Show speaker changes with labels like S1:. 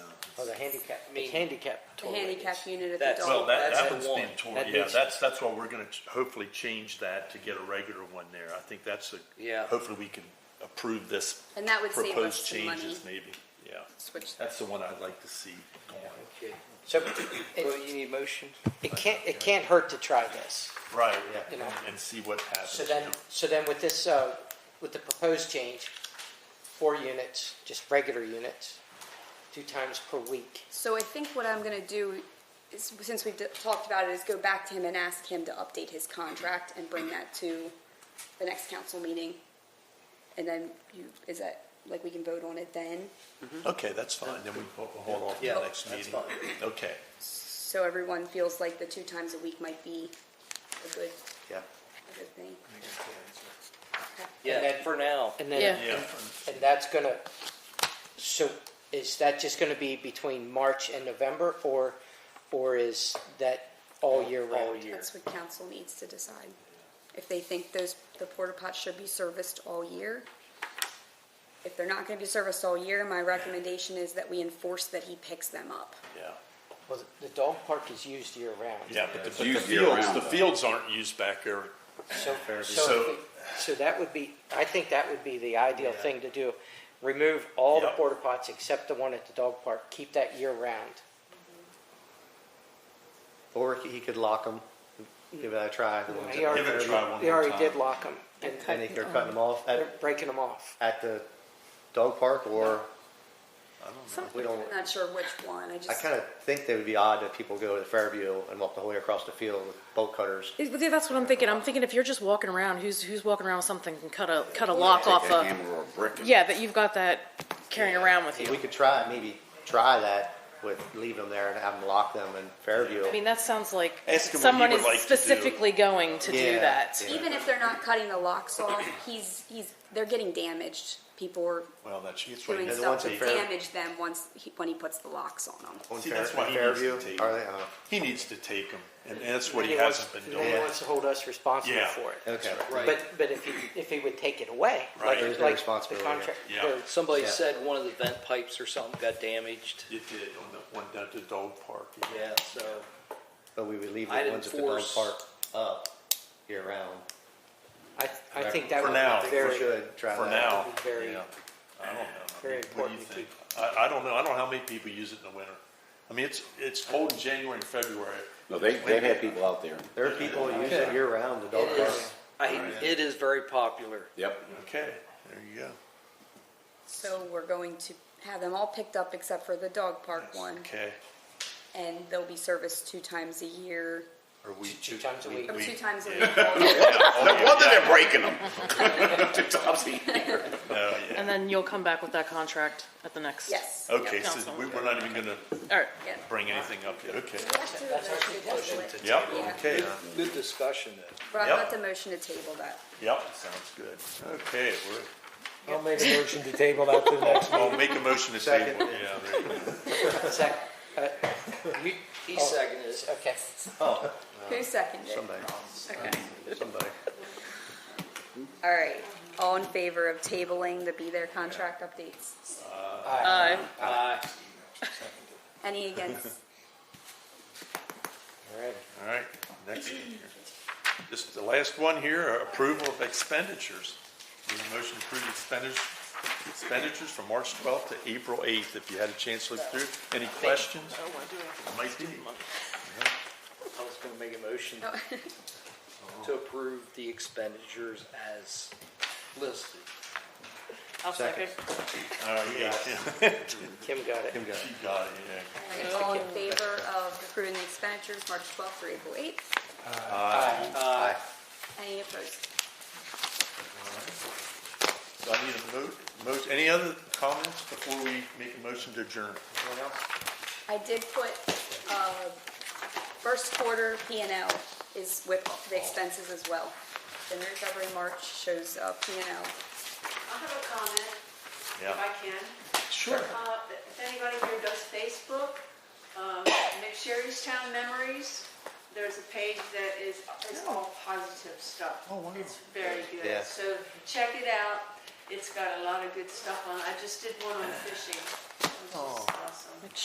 S1: Oh, the handicap,
S2: mean-
S1: it's handicap
S3: The
S1: toilet.
S3: handicap
S1: It's-
S3: unit at the
S2: That's-
S3: dog.
S4: Well, that,
S2: That's
S4: that
S2: the
S4: one's
S2: one.
S4: been torn,
S1: That
S4: yeah,
S1: needs-
S4: that's, that's why we're gonna ch- hopefully change that to get a regular one there. I think that's a.
S2: Yeah.
S4: Hopefully we can approve this.
S3: And that would save
S4: proposed
S3: us some money.
S4: changes Maybe, yeah.
S3: Switch that.
S4: That's the one I'd like to see going.
S1: So
S2: Well,
S1: it,
S2: you need motion?
S1: it can't, it can't hurt to try this.
S4: Right, yeah,
S1: You know.
S4: and see what happens.
S1: So then, so then with this, uh, with the proposed change, four units, just regular units, two times per week.
S3: So I think what I'm going to do, is, since we've d- talked about it, is go back to him and ask him to update his contract and bring that to the next council meeting. And then you, is that, like, we can vote on it then?
S4: Okay, that's fine, then we ho- we'll hold off to
S2: Yeah,
S4: the next
S2: that's
S4: meeting.
S2: fine.
S4: Okay,
S3: So everyone feels like the two times a week might be a good,
S4: yeah.
S3: a good thing.
S2: Yeah,
S1: And then-
S2: for now.
S1: And then,
S5: Yeah.
S4: Yeah,
S1: and that's gonna, so is that just gonna be between March and November or, or is that all year round?
S2: All year.
S3: That's what council needs to decide. If they think those, the porta pots should be serviced all year. If they're not gonna be serviced all year, my recommendation is that we enforce that he picks them up.
S4: yeah,
S1: Well, the dog park is used year round.
S4: yeah, but the but the
S6: used year
S4: fields,
S6: round,
S4: the
S6: though.
S4: fields aren't used back there.
S1: So, so,
S4: So-
S1: if we- so that would be, I think that would be the ideal thing to do. Remove all the
S4: Yep.
S1: porta pots except the one at the dog park, keep that year round.
S7: Or he could lock them, give it a try. the ones
S1: They
S7: that-
S1: already,
S4: it a try one
S1: they
S4: more
S1: already
S4: time.
S1: did lock them and
S7: I think they're cutting them off
S1: they're
S7: at,
S1: breaking them off.
S7: at the dog park or, we don't,
S3: I'm not sure which one, I
S7: Oh. I
S3: just.
S7: kind of think that would be odd that people go to Fairview and walk the whole way across the field with bolt cutters.
S5: It- but That's what I'm thinking. I'm thinking if you're just walking around, who's who's walking around with something and cut a cut a lock off
S6: Take a
S5: a
S6: hammer or a brick and
S5: yeah that you've got that carrying around with
S7: We
S5: you.
S7: could try, maybe try that with leaving them there and have them lock them in Fairview.
S5: I mean that sounds like
S4: Ask him what
S5: someone
S4: he would
S5: is
S4: like to do.
S5: specifically going to do
S7: Yeah,
S5: that.
S7: yeah.
S3: Even if they're not cutting the locks off, he's, he's, they're getting damaged. People are
S4: Well, that's, that's why,
S3: doing
S7: the
S3: stuff
S7: ones
S3: to
S7: that fair-
S3: damage them once, he- when he puts the locks on them.
S7: On
S4: See,
S7: Fair-
S4: that's why
S7: on
S4: he needs to
S7: Fairview?
S4: take
S7: Are
S4: it.
S7: they, uh,
S4: he needs to take them, and that's what he
S1: Nobody wants-
S4: hasn't been
S1: Nobody
S4: doing.
S1: wants to hold us responsible
S4: Yeah.
S1: for it.
S7: okay.
S2: Right.
S1: But, but if he, if he would take it away, like,
S4: Right. There's
S7: no
S1: like the
S7: responsibility.
S1: contract,
S4: Yeah.
S1: or
S2: Somebody
S7: Yeah.
S2: said one of the vent pipes or something got damaged.
S4: It did, on the one down at the dog park.
S2: Yeah, so,
S7: But we would leave the
S2: I'd
S7: ones at the dog
S2: enforce-
S7: park up year round.
S1: I, I think that
S4: For
S1: would
S4: now.
S1: be
S4: We
S7: We
S1: very,
S7: should try
S4: For
S7: that.
S4: now,
S1: would be very,
S4: yeah. I don't know.
S1: Very
S4: I mean, what do you
S1: important to
S4: think? I, I don't know. I don't know how many people use it in the winter. I mean, it's, it's cold in January and February.
S6: No, they, they've had people out there.
S7: There are people who use it year round, the dog
S2: it
S7: park.
S2: is, I, it is very popular.
S6: Yep.
S4: Okay, there you go.
S3: So we're going to have them all picked up except for the dog park one.
S4: Okay.
S3: And they'll be serviced two times a year.
S4: Or we.
S1: two times a week.
S3: Or two
S4: We-
S3: times a
S4: yeah.
S3: week.
S6: No wonder they're breaking them. Two times a year.
S4: No, Oh, yeah.
S5: And then you'll come back with that contract at the next.
S3: Yes.
S4: Okay,
S5: Yeah,
S4: so
S5: council.
S4: we, we're not even gonna
S5: All right.
S3: Yeah.
S4: bring anything up yet. Okay.
S3: That's actually
S4: Yep,
S3: Yeah.
S4: okay.
S2: Good discussion then.
S3: Rob,
S4: Yep.
S3: let the motion to table that.
S4: Yep, sounds good. Okay, we're,
S8: I'll make a motion to table that to the next
S4: I'll make a motion to
S7: Second.
S4: table. Yeah, there you go.
S1: Zach, uh, you,
S2: He seconded it.
S1: okay.
S3: Who seconded?
S7: Uh, Somebody,
S3: Okay.
S7: somebody.
S3: All right. All in favor of tabling the be there contract updates?
S5: Aye.
S2: Aye.
S3: Any against?
S1: All right.
S4: All right, next one here. This, the last one here, uh, approval of expenditures. Need a motion to approve expenditures, expenditures from March 12th to April 8th, if you had a chance to look through. Any questions? Might be.
S2: I was gonna make a motion to approve the expenditures as listed.
S5: I'll second.
S4: All right, yeah,
S1: Kim got it.
S7: Kim got it.
S4: she got it, yeah.
S3: All right, All in favor of approving the expenditures March 12th through April 8th?
S7: Aye.
S3: Any opposed?
S4: So I need a mo, mo, any other comments before we make a motion to adjourn?
S3: I did put, uh, first quarter P and L is with the expenses as well. January, February, March shows, uh, P and L.
S9: I have a comment,
S4: Yeah,
S9: if I can.
S4: sure.
S9: Uh, If anybody here does Facebook, um, McSherrystown Memories, there's a page that is, is all positive stuff.
S4: Oh, wow.
S9: It's very
S7: Yeah.
S9: good. So check
S4: Oh.
S9: it out. It's got a lot of good stuff on it. I just did one on fishing. It was just, uh,